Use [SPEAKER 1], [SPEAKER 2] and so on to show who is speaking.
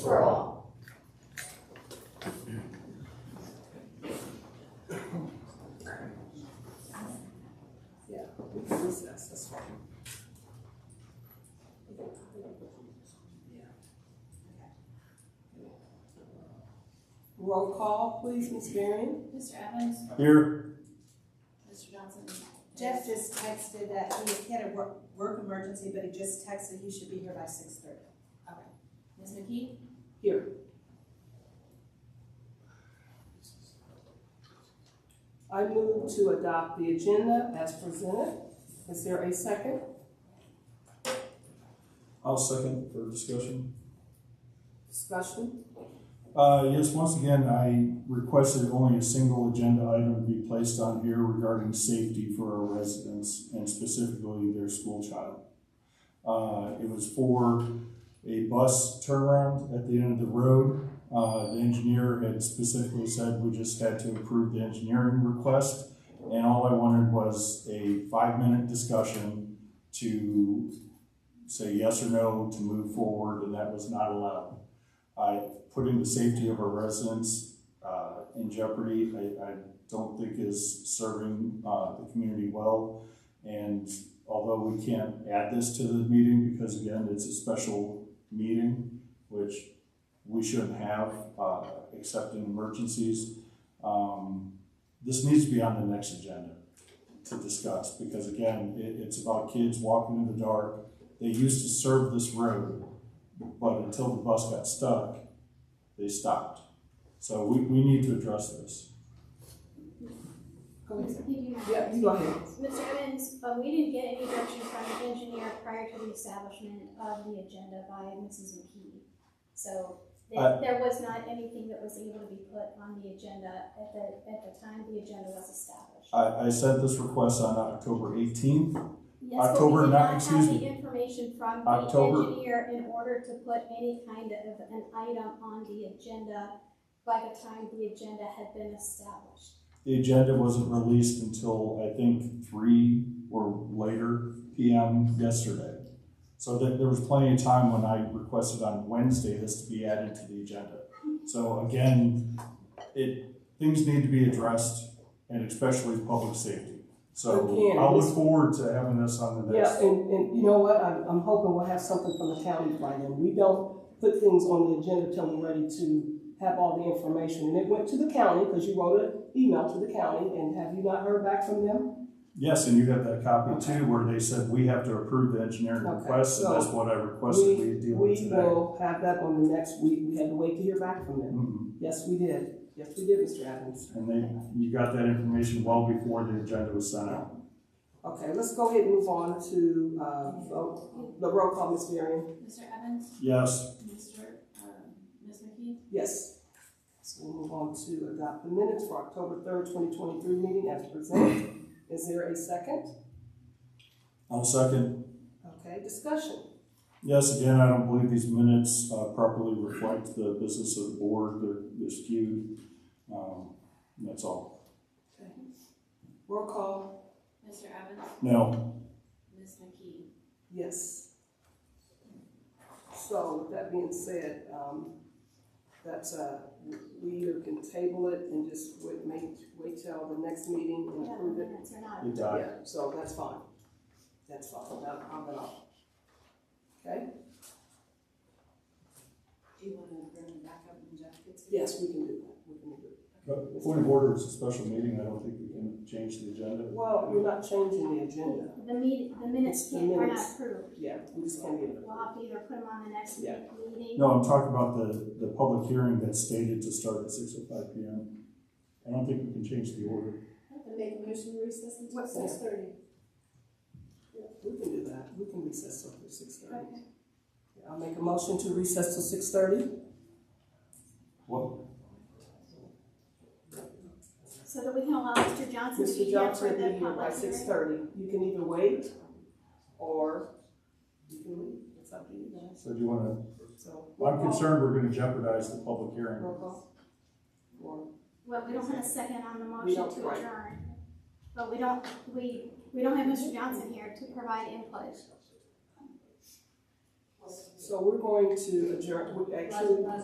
[SPEAKER 1] Roll call, please, Ms. Marion.
[SPEAKER 2] Mr. Evans?
[SPEAKER 3] Here.
[SPEAKER 2] Mr. Johnson?
[SPEAKER 4] Jeff just texted that he- he had a work, work emergency, but he just texted he should be here by six thirty.
[SPEAKER 2] Ms. McKee?
[SPEAKER 1] Here. I move to adopt the agenda as presented. Is there a second?
[SPEAKER 3] I'll second for discussion.
[SPEAKER 1] Discussion?
[SPEAKER 3] Uh, yes, once again, I requested only a single agenda item be placed on here regarding safety for our residents and specifically their school child. Uh, it was for a bus turnaround at the end of the road. Uh, the engineer had specifically said we just had to approve the engineering request. And all I wanted was a five-minute discussion to say yes or no, to move forward, and that was not allowed. I putting the safety of our residents uh, in jeopardy, I, I don't think is serving uh, the community well. And although we can't add this to the meeting, because again, it's a special meeting, which we shouldn't have, uh, except in emergencies, um, this needs to be on the next agenda to discuss, because again, it, it's about kids walking in the dark. They used to serve this road, but until the bus got stuck, they stopped. So we, we need to address this.
[SPEAKER 1] Go ahead.
[SPEAKER 5] You do not.
[SPEAKER 1] Yeah, you go ahead.
[SPEAKER 5] Mr. Evans, uh, we didn't get any direction from the engineer prior to the establishment of the agenda by Mrs. McKee. So
[SPEAKER 3] Uh,
[SPEAKER 5] there, there was not anything that was able to be put on the agenda at the, at the time the agenda was established.
[SPEAKER 3] I, I sent this request on October eighteenth.
[SPEAKER 5] Yes, but
[SPEAKER 3] October
[SPEAKER 5] we did
[SPEAKER 3] not-
[SPEAKER 5] not
[SPEAKER 3] excuse
[SPEAKER 5] have the
[SPEAKER 3] me.
[SPEAKER 5] information from the
[SPEAKER 3] October-
[SPEAKER 5] engineer in order to put any kind of an item on the agenda by the time the agenda had been established.
[SPEAKER 3] The agenda wasn't released until, I think, three or later PM yesterday. So there, there was plenty of time when I requested on Wednesday this to be added to the agenda. So again, it, things need to be addressed and especially public safety. So
[SPEAKER 1] Again,
[SPEAKER 3] I
[SPEAKER 1] this-
[SPEAKER 3] look forward to having this on the
[SPEAKER 1] Yeah,
[SPEAKER 3] next.
[SPEAKER 1] and, and you know what, I'm, I'm hoping we'll have something from the county by then. We don't put things on the agenda till we're ready to have all the information. And it went to the county, because you wrote an email to the county, and have you not heard back from them?
[SPEAKER 3] Yes, and you have that copy too, where they said we have to approve the engineering
[SPEAKER 1] Okay,
[SPEAKER 3] request, and
[SPEAKER 1] so
[SPEAKER 3] that's what I requested we deal with
[SPEAKER 1] We
[SPEAKER 3] today.
[SPEAKER 1] will have that on the next week, we had to wait to hear back from them.
[SPEAKER 3] Mhm.
[SPEAKER 1] Yes, we did, yes, we did, Mr. Evans.
[SPEAKER 3] And they, you got that information well before the agenda was sent out.
[SPEAKER 1] Okay, let's go ahead and move on to, uh, vote. the roll call, Ms. Marion.
[SPEAKER 2] Mr. Evans?
[SPEAKER 3] Yes,
[SPEAKER 2] Mr. um, Ms. McKee?
[SPEAKER 1] Yes. So we'll move on to adopt the minutes for October third, twenty twenty-three meeting as presented. Is there a second?
[SPEAKER 3] I'll second.
[SPEAKER 1] Okay, discussion.
[SPEAKER 3] Yes, again, I don't believe these minutes uh, properly reflect the business of the board, they're, they're skewed. Um, and That's all.
[SPEAKER 1] Roll call,
[SPEAKER 2] Mr. Evans?
[SPEAKER 3] No,
[SPEAKER 2] Ms. McKee?
[SPEAKER 1] yes. So with that being said, um, that's, uh, we either can table it and just wait, make, wait till the next meeting and
[SPEAKER 5] Yeah,
[SPEAKER 1] approve it.
[SPEAKER 5] minutes are not
[SPEAKER 3] it died.
[SPEAKER 1] Yeah, so that's fine. That's fine, that, I'm gonna. Okay,
[SPEAKER 2] Do you want to bring it back up when Jeff gets here?
[SPEAKER 1] yes, we can do that, we can do that.
[SPEAKER 3] But uh, Point of order is a special meeting, I don't think we can change the agenda.
[SPEAKER 1] Well, you're not changing the agenda.
[SPEAKER 5] The meet, the minutes
[SPEAKER 1] the
[SPEAKER 5] can't, are
[SPEAKER 1] minutes.
[SPEAKER 5] not approved.
[SPEAKER 1] Yeah, we just can't get it.
[SPEAKER 5] We'll have to either put them on the next
[SPEAKER 1] Yeah.
[SPEAKER 5] meeting.
[SPEAKER 3] No, I'm talking about the, the public hearing that's stated to start at six oh five PM. I don't think we can change the order.
[SPEAKER 6] And make a motion to recess until
[SPEAKER 1] What's that?
[SPEAKER 6] six thirty.
[SPEAKER 1] We can do that, we can recess till six thirty. I'll make a motion to recess till six thirty.
[SPEAKER 3] What?
[SPEAKER 5] So that we can allow Mr. Johnson to be
[SPEAKER 1] Mr.
[SPEAKER 5] here for
[SPEAKER 1] Johnson will
[SPEAKER 5] the
[SPEAKER 1] be here by
[SPEAKER 5] public
[SPEAKER 1] six
[SPEAKER 5] hearing.
[SPEAKER 1] thirty. You can either wait or you can leave. It's up to you guys.
[SPEAKER 3] So do you wanna
[SPEAKER 1] So.
[SPEAKER 3] Well, I'm concerned we're gonna jeopardize the public hearing.
[SPEAKER 1] Roll call. Or-
[SPEAKER 5] Well, we don't have a second on the
[SPEAKER 1] We
[SPEAKER 5] motion
[SPEAKER 1] don't,
[SPEAKER 5] to
[SPEAKER 1] right.
[SPEAKER 5] adjourn. But we don't, we, we don't have Mr. Johnson here to provide input.
[SPEAKER 1] So we're going to adjourn, we actually.